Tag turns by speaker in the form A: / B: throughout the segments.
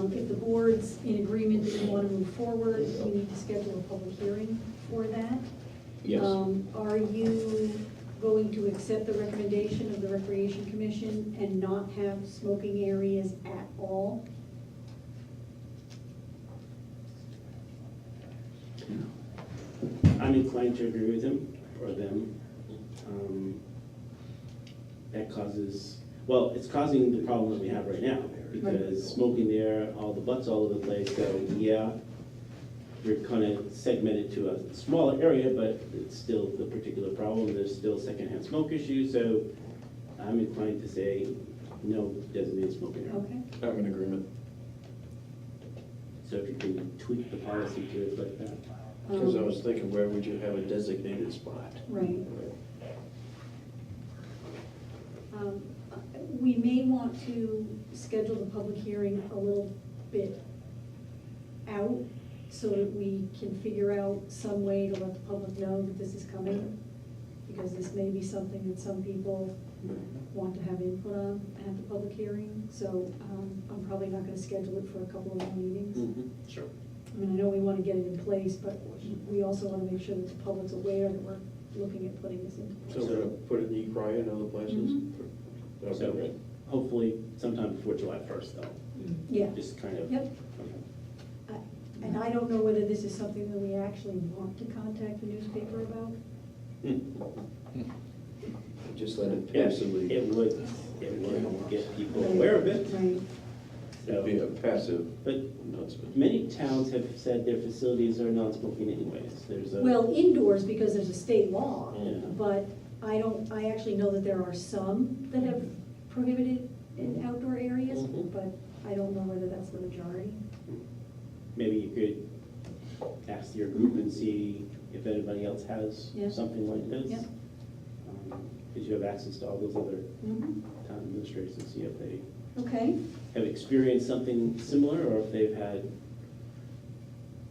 A: Um, everyone's in agreement that we want to move forward, we need to schedule a public hearing for that.
B: Yes,
A: Um, Are you going to accept the recommendation of the Recreation Commission and not have smoking areas at all?
C: I'm inclined to agree with him or them. Um, That causes, well, it's causing the problem that we have right now because smoking there, all the butts all over the place, so yeah, we're kind of segmented to a smaller area, but it's still the particular problem. There's still secondhand smoke issues, so I'm inclined to say no designated smoking area.
A: Okay,
B: I'm in agreement.
C: So if you can tweak the policy to reflect that.
B: Because I
A: Um,
B: was thinking, where would you have a designated spot?
A: right. Um, uh, We may want to schedule the public hearing a little bit out so that we can figure out some way to let the public know that this is coming. Because this may be something that some people
B: Mm-hmm.
A: want to have input on at the public hearing. So um, I'm probably not gonna schedule it for a couple of more meetings.
B: Sure.
A: I mean, I know we wanna get it in place, but we also wanna make sure that the public's aware that we're looking at putting this in.
B: So we're gonna put it in Ecry and other places?
A: Mm-hmm.
C: So
B: Okay,
C: hopefully sometime before July 1st though.
A: Yeah,
C: Just kind of.
A: yep. I- And I don't know whether this is something that we actually want to contact the newspaper about.
B: just let it
C: Yes,
B: passively,
C: it would, it would get people aware of it.
A: Right,
B: it'd be
C: So,
B: a passive
C: But
B: announcement.
C: many towns have said their facilities are non-smoking anyways. There's a.
A: well, indoors because there's a state law,
C: Yeah.
A: but I don't, I actually know that there are some that have prohibited in outdoor areas,
C: Mhm.
A: but I don't know whether that's the majority.
C: Maybe you could ask your group and see if anybody else has
A: Yeah.
C: something like
A: Yeah.
C: this. Because you have access to all those other town administrators and see if they
A: Okay,
C: have experienced something similar or if they've had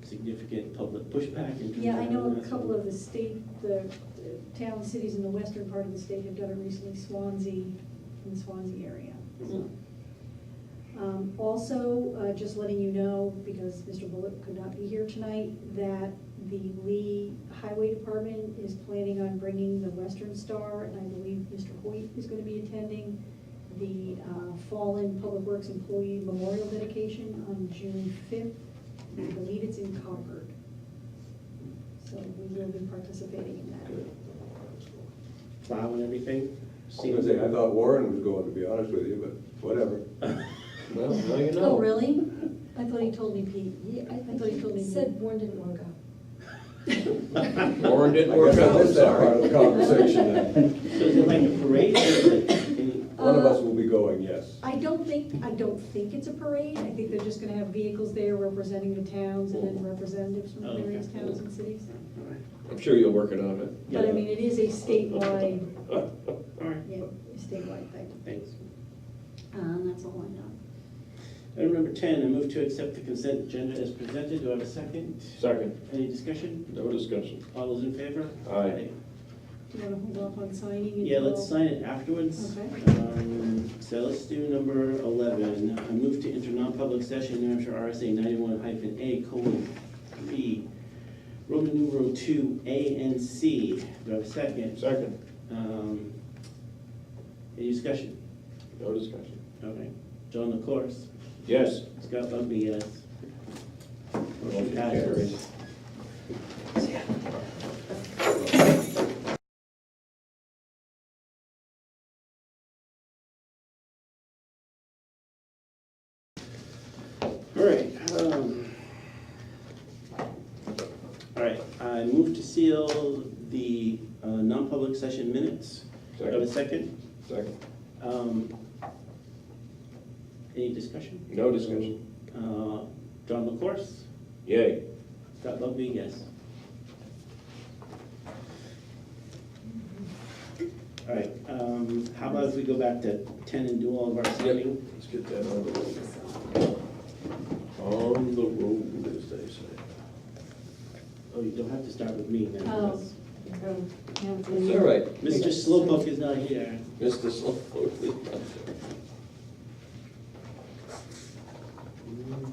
C: significant public pushback in terms of.
A: yeah, I know
C: having
A: a
C: that.
A: couple of the state, the the town, cities in the western part of the state have done it recently, Swansea, in the Swansea area.
C: Mhm.
A: Um, Also, uh, just letting you know, because Mr. Bullock could not be here tonight, that the Lee Highway Department is planning on bringing the Western Star, and I believe Mr. Hoyt is going to be attending the uh, Fallen Public Works Employee Memorial Dedication on June 5th. I believe it's in Concord. So we will be participating in that.
C: Plow and everything.
D: I was gonna say, I thought Warren was going, to be honest with you, but whatever.
B: Well, now you know.
A: Oh, really? I thought he told me Pete.
E: Yeah, I
A: I thought he told
E: think
A: me
E: he
A: you-
E: said Warren didn't want to go.
B: Warren
D: I
B: didn't work
D: guess I
B: out,
D: missed that part of the
B: sorry.
D: conversation then.
C: So is it like a parade or is it in-
D: One of us will be going, yes.
A: I don't think, I don't think it's a parade, I think they're just gonna have vehicles there representing the towns and then representatives from the
C: Oh, okay.
A: various towns and cities.
B: I'm sure you'll work it on it.
A: But I mean, it is a statewide,
C: All right,
A: yeah, a statewide thing,
C: thanks.
A: um, that's all I know.
C: Item number ten, I move to accept the consent agenda as presented. Do I have a second?
B: Second,
C: Any discussion?
B: no discussion.
C: All those in favor?
B: Aye.
A: Do you wanna hold off on signing? until-
C: Yeah, let's sign it afterwards.
A: Okay.
C: Um, So let's do number eleven. I move to enter non-public session, New Hampshire RSA ninety-one hyphen A colon three, Roman numeral two, A and C. Do I have a second?
B: Second,
C: Um, Any discussion?
B: no discussion.
C: Okay. John LaCourse.
B: Yes.
C: Scott Bugby, yes. Motion
B: Motion carries.
C: passes. All right. um, All right, I move to seal the uh, non-public session minutes. Do I have a second?
B: Second,
C: Um, Any discussion?
B: no discussion.
C: Uh, John LaCourse,
B: Yay.
C: Scott Bugby, yes. All right, um, how about if we go back to ten and do all of our signing?
B: Let's get that on the road. On the road, as they say.
C: Oh, you don't have to start with me then.
A: Oh.
C: because
A: So, yeah,
B: It's all right.
C: Mr. Slowpoke is not here.
B: Mr. Slow.